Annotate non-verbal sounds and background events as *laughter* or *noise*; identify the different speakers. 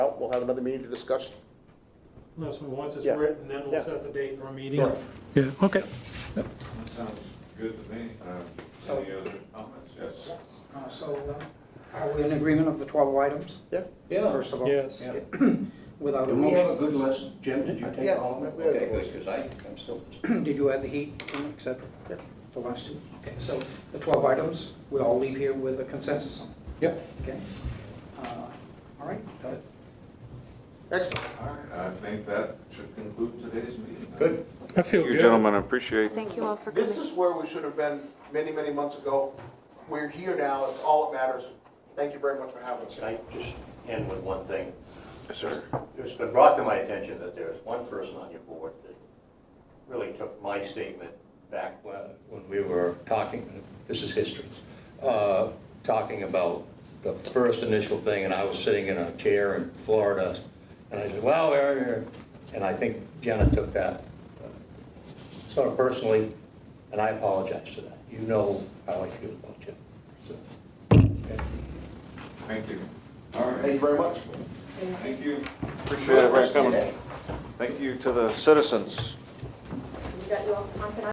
Speaker 1: out, we'll have another meeting to discuss.
Speaker 2: Unless we, once it's
Speaker 1: Yeah.
Speaker 2: written, then
Speaker 1: Yeah.
Speaker 2: we'll set the date for a meeting.
Speaker 1: Sure.
Speaker 2: Yeah, okay.
Speaker 3: That sounds good to me. Uh, Any other comments? Yes.
Speaker 4: Uh, So uh, are we in agreement of the 12 items,
Speaker 1: Yeah?
Speaker 5: Yeah,
Speaker 4: first of all?
Speaker 2: Yes.
Speaker 5: yeah.
Speaker 4: Without a
Speaker 5: Do we have a
Speaker 4: motion?
Speaker 5: good list? Jim, did you
Speaker 1: Yeah,
Speaker 5: take all of them?
Speaker 1: we have a
Speaker 5: Okay,
Speaker 1: good
Speaker 5: good, because I, I'm still,
Speaker 4: *clears throat* Did you add the heat, et cetera?
Speaker 1: Yeah.
Speaker 4: The last two? Okay, so the 12 items, we all leave here with a consensus on,
Speaker 5: yep.
Speaker 4: okay? Uh, All right, uh,
Speaker 1: Excellent.
Speaker 3: All right, I think that should conclude today's meeting.
Speaker 1: Good.
Speaker 2: I feel
Speaker 3: Thank you,
Speaker 2: good.
Speaker 3: gentlemen, I appreciate
Speaker 6: Thank you all for coming.
Speaker 1: This is where we should have been many, many months ago. We're here now, it's all that matters. Thank you very much for having us.
Speaker 5: Can I just end with one thing?
Speaker 3: Yes, sir.
Speaker 5: It's been brought to my attention that there's one person on your board that really took my statement back when, when we were talking, this is history, uh, talking about the first initial thing, and I was sitting in a chair in Florida, and I said, well, we're here," and I think Jenna took that uh, sort of personally, and I apologize to that. You know how I feel about you. So, okay.
Speaker 3: Thank you. All
Speaker 1: Thank
Speaker 3: right,
Speaker 1: you very much.
Speaker 3: thank you. Appreciate everybody coming. Thank you to the citizens.
Speaker 6: We got you all the time, can I